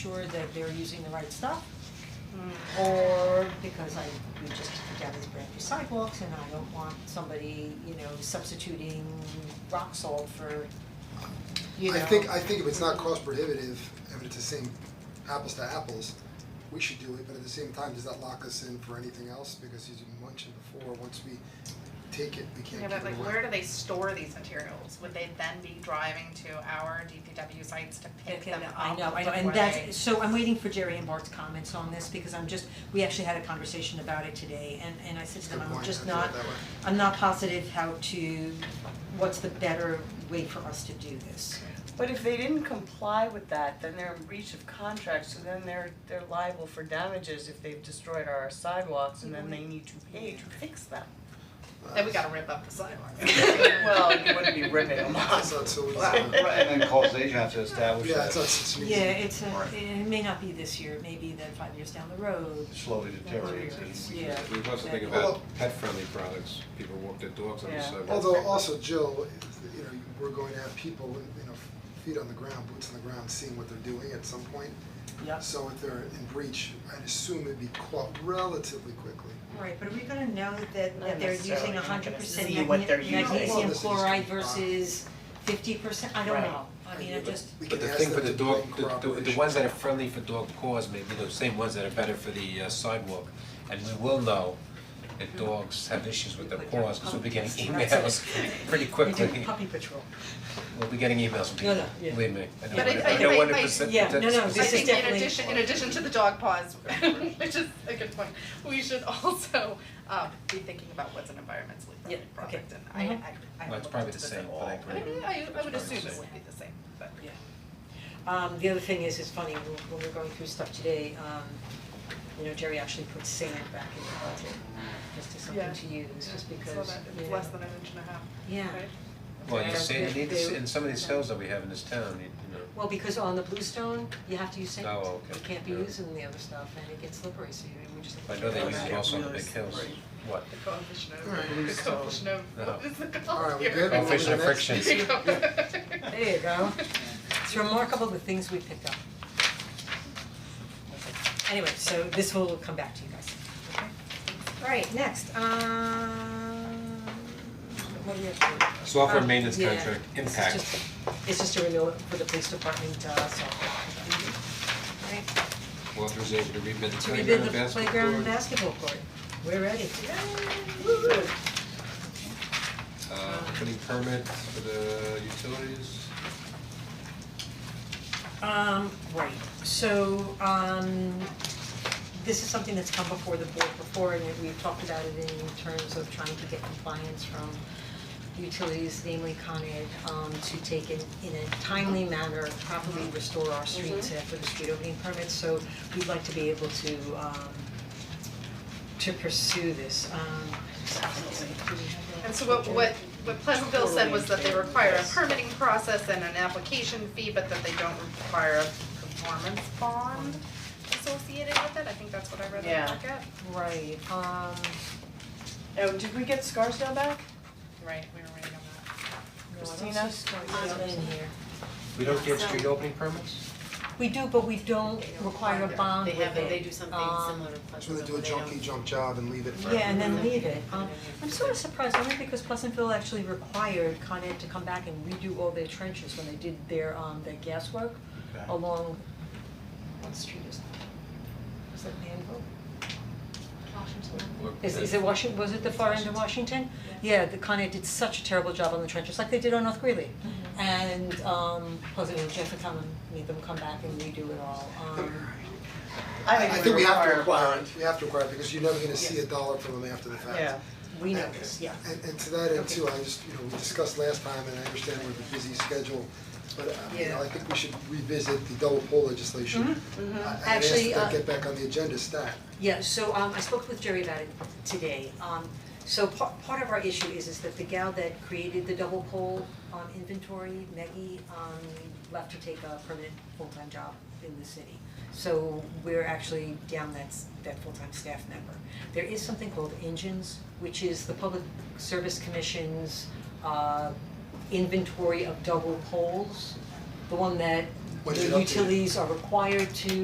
sure that they're using the right stuff. Or because I, we just took down these brand new sidewalks and I don't want somebody, you know, substituting rock salt for, you know. I think, I think if it's not cost prohibitive, and it's the same apples to apples, we should do it, but at the same time, does that lock us in for anything else? Because as you mentioned before, once we take it, we Yeah, can't but give it like away. where do they store these materials? Would they then be driving to our DPW sites to pick Okay, them up I know, I know, and before they- that's, so I'm waiting for Jerry and Bart's comments on this because I'm just, we actually had a conversation about it today and and I said to them, Good I'm point, just I thought not, that way. I'm not positive how to, what's the better way for us to do this. But if they didn't comply with that, then they're in breach of contract, so then they're they're liable for damages if they've destroyed our sidewalks and then they need to pay to fix them. Then we gotta rip up the sidewalk. Well, you wouldn't be ripping them It's off. not so easy. Right, and then causation has to establish Yeah, it's not that so easy. Yeah, it's a, Right. it may not be this year, maybe then five years down the road. it slowly deteriorates It's- and we yeah. We also think Although- about pet-friendly products, people walk their dogs on the Yeah. sidewalk. Although also Jill, you know, we're going to have people, you know, feet on the ground, boots on the ground, seeing what they're doing at some point. Yep. So if they're in breach, I'd assume it'd be caught relatively quickly. Right, but are we gonna know that Not that they're necessarily, using you're not hundred gonna percent see what they're using. Well, magnesium this is chloride true. versus fifty percent, I don't Right. know, I mean, I just, We But can the ask thing for them the to do dog, it in the- the, the cooperation. ones that are friendly for dog paws may be the same ones that are better for the uh, sidewalk. And we will know Hmm. that dogs have issues with their paws, because we'll be getting emails pretty we quickly. do puppy patrol. We'll be getting emails from No, people, no, yeah. believe me. I know But one- I- I- I know I- I- 100% yeah, no, no, that's- this I is think in definitely- addition, in addition to the dog paws, which is a good point, we should also um be thinking about what's an environmentally Yeah, friendly okay. product and I I Mhm. I Well, haven't it's looked probably into the this same, at but all. I agree. mean, I I It's would probably the assume it same. would be the same, but Yeah. Um, the other thing is, it's funny, when, when we were going through stuff today, um, you know, Jerry actually put sand back in the budget, just as something Yeah. to use, just because, So that you it's know. less than an inch and a half, Yeah. right? Well, you Yeah. see, you need to see- in some of these Yeah. hills that we have in this town, you you know. Well, because on the bluestone, you have to use sand, Oh, you okay. can't be Yeah. using the other stuff, and it gets slippery, so you, we just have to. I know they keep use that. it also on the big hills. What? The coefficient of, Alright, the so- coefficient of, No. what is the All right, called we here? good? Maybe we'll Coefficient of do next. friction. There you go. It's remarkable the things we picked up. Anyway, so this will come back to you guys. Alright, next, um, what do we have to do? Software Um, maintenance yeah, contract this is impact. just- It's just a renewal for the police department, uh, software contract. Right, Authorization to rebid the to playground rebid the basketball playground court. basketball court, we're ready. Uh, putting permit for the utilities. Um, right, so, um, this is something that's come before the board before, and we've talked about it in terms of trying to get compliance from utilities, namely Con Ed, um, to take in, in a timely manner, properly restore our streets after the street opening permits, so we'd like to be able to, um, to pursue this, um, do we have that? And so what what what Pleasantville said was that they require a permitting process and an application fee, but that they don't require a performance bond associated with it, I think that's what I read in Yeah. the packet. Right, um. Oh, did we get Scarsdale back? Right, we were waiting on that. Christina? We don't get street opening permits? We do, but we don't require a bond They with have, it. they do something Um, similar to So they Pleasantville, do a where they don't junky junk job and leave it for. Yeah, and then everyone. leave it. Um, I'm sort of surprised, only because Pleasantville actually required Con Ed to come back and redo all their trenches when they did their, um, their gas work Okay. along, what street is that? Is that Manville? Look, Is, they- is it Washington, was it the far end of Washington? Yeah, the Con Ed did such a terrible job on the trenches, like they did on North Greeley. Mm-hmm. And, um, Pleasantville, Jeff and Tom made them come back and redo it all, um. I I think we have to a require bond. it, we have to require it, because you're never gonna see a dollar from them after the fact. Yeah. We know this, yeah. And and to that end too, I just, you know, we discussed last time and I understand we're a busy schedule, but uh, you know, I think we should revisit the double poll legislation. I I'd ask Mm-hmm, Actually, that uh, that get back on the agenda stat. Yeah, so um I spoke with Jerry about it today, um so part part of our issue is is that the gal that created the double pole um inventory, Maggie, um left to take a permanent full-time job in the city. So we're actually down that s- that full-time staff member. There is something called engines, which is the Public Service Commission's uh inventory of double poles. The one that What the did it update? utilities are required to